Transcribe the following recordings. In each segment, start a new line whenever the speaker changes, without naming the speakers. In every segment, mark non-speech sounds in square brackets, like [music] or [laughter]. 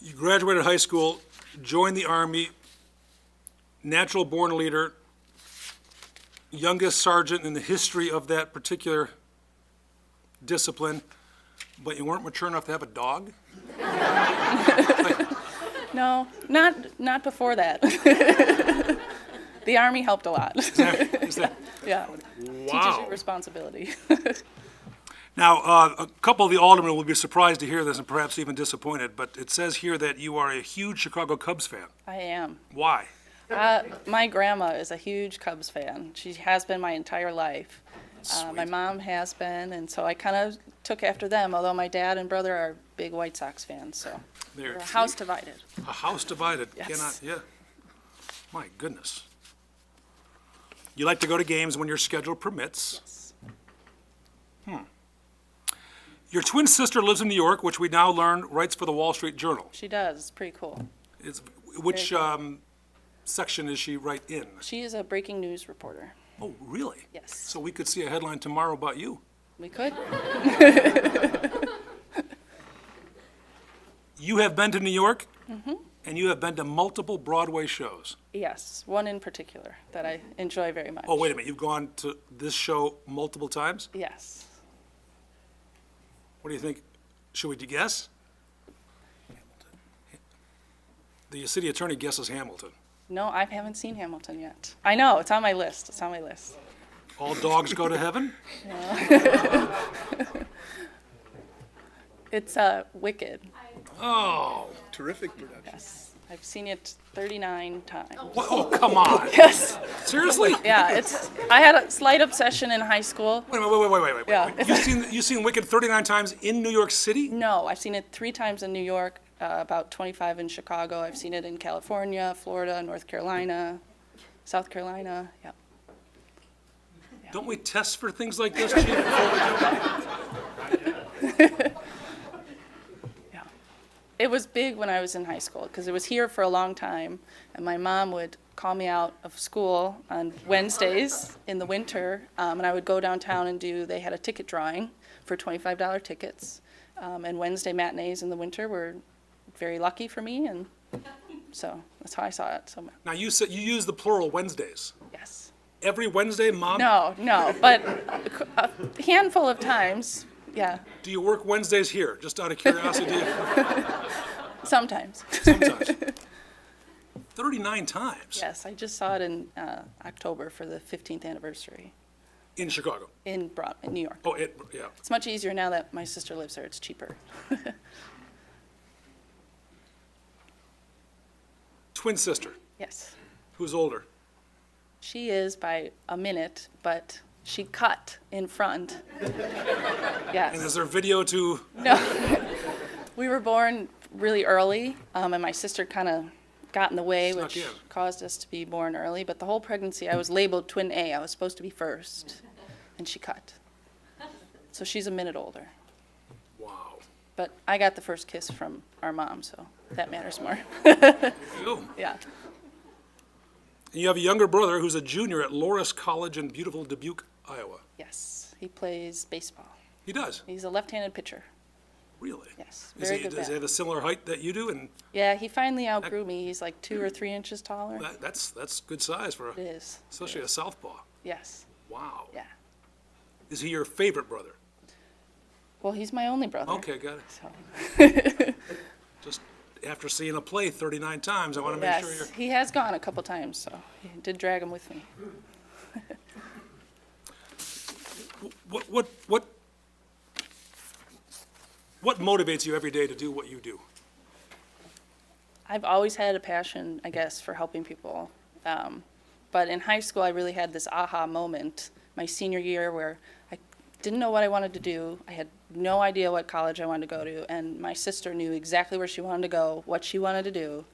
You graduated high school, joined the Army, natural born leader, youngest sergeant in the history of that particular discipline, but you weren't mature enough to have a
[laughs]
dog?
No, not, not before that.
[laughs]
The Army helped a lot,
Is that-
[laughs] yeah. Teaches you
Wow.
responsibility. [laughs]
Now, uh, a couple of the aldermen will be surprised to hear this and perhaps even disappointed, but it says here that you are a huge Chicago Cubs fan.
I am.
Why?
Uh, My grandma is a huge Cubs fan. She has been my entire life. Uh, my
Sweet.
mom has been, and so I kind of took after them, although my dad and brother are big White Sox fans, so.
There.
we're a House divided.
A house divided
Yes.
cannot, yeah. My goodness. You like to go to games when your schedule permits. Hmm. Your twin sister lives in New York, which we now learn writes for the Wall Street Journal.
She does, it's pretty cool.
Is- Which um, section is she right in?
She is a breaking news reporter.
Oh, really?
Yes.
So we could see a headline tomorrow about you.
We could,
You have been to New York?
Mm-hmm.
And you have been to multiple Broadway shows.
yes, one in particular that I enjoy very much.
Oh, wait a minute, you've gone to this show multiple times?
Yes.
What do you think? Should we guess? The city attorney guesses Hamilton.
No, I haven't seen Hamilton yet. I know, it's on my list, it's on my list.
All dogs go to
[laughs]
heaven?
It's uh, Wicked,
Oh,
Terrific production.
yes. I've seen it 39 times.
wha- oh, come on.
Yes.
Seriously? Wait
[laughs] Yeah, it's. I had a slight obsession in high school.
a minute, wait, wait, wait, wait, wait.
Yeah.
You've seen, you've seen Wicked 39 times in New York City?
No, I've seen it three times in New York, uh, about 25 in Chicago. I've seen it in California, Florida, North Carolina, South Carolina. Yep.
Don't we test for things like this,
[laughs]
Chief?
Yeah. It was big when I was in high school because it was here for a long time, and my mom would call me out of school on Wednesdays in the winter, um, and I would go downtown and do. They had a ticket drawing for twenty-five dollar tickets, um, and Wednesday matinees in the winter were very lucky for me, and so that's how I saw it. So
Now, you said, you use the plural Wednesdays.
yes.
Every Wednesday, Mom?
No, no, but a handful of times, yeah,
Do you work Wednesdays here? Just out of curiosity,
[laughs]
do you-
sometimes. [laughs]
sometimes. 39 times?
Yes, I just saw it in uh, October for the 15th anniversary
In Chicago?
in Broad, in New York.
Oh, it, yeah.
It's much easier now that my sister lives there, it's cheaper.
Twin sister,
Yes.
who's older?
She is by a minute, but she cut in front.
And is
[laughs] Yes.
there video to,
We were born really early, um, and my sister kind of got in the way,
Snuck
which
in.
caused us to be born early. But the whole pregnancy, I was labeled twin A. I was supposed to be first, and she cut. So she's a minute older.
wow.
But I got the first kiss from our mom, so that matters more. [laughs]
You.
yeah.
And you have a younger brother who's a junior at Loris College in beautiful Dubuque, Iowa.
Yes. He plays baseball.
He does,
He's a left-handed pitcher.
really?
Yes,
Is
very
he-
good
Does he
bat.
have a similar height that you do? And
Yeah, he finally outgrew me. He's like two or three inches taller.
that, that's, that's good size for, a-
It is.
especially a southpaw.
Yes.
Wow.
Yeah.
Is he your favorite brother?
Well, he's my only brother.
Okay, got it.
So,
Just after seeing a play 39 times, I want to make sure you're.
yes, he has gone a couple times, so he did drag him with me.
What, what, what, what motivates you every day to do what you do?
I've always had a passion, I guess, for helping people. Um, but in high school, I really had this aha moment my senior year where I didn't know what I wanted to do. I had no idea what college I wanted to go to, and my sister knew exactly where she wanted to go, what she wanted to do,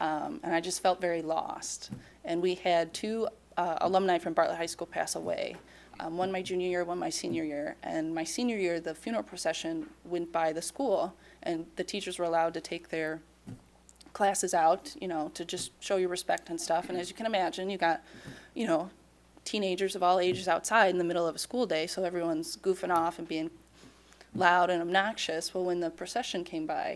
um, and I just felt very lost. And we had two uh, alumni from Bartlett High School pass away. Um, one my junior year, one my senior year. And my senior year, the funeral procession went by the school, and the teachers were allowed to take their classes out, you know, to just show your respect and stuff. And as you can imagine, you got, you know, teenagers of all ages outside in the middle of a school day, so everyone's goofing off and being loud and obnoxious. Well, when the procession came by,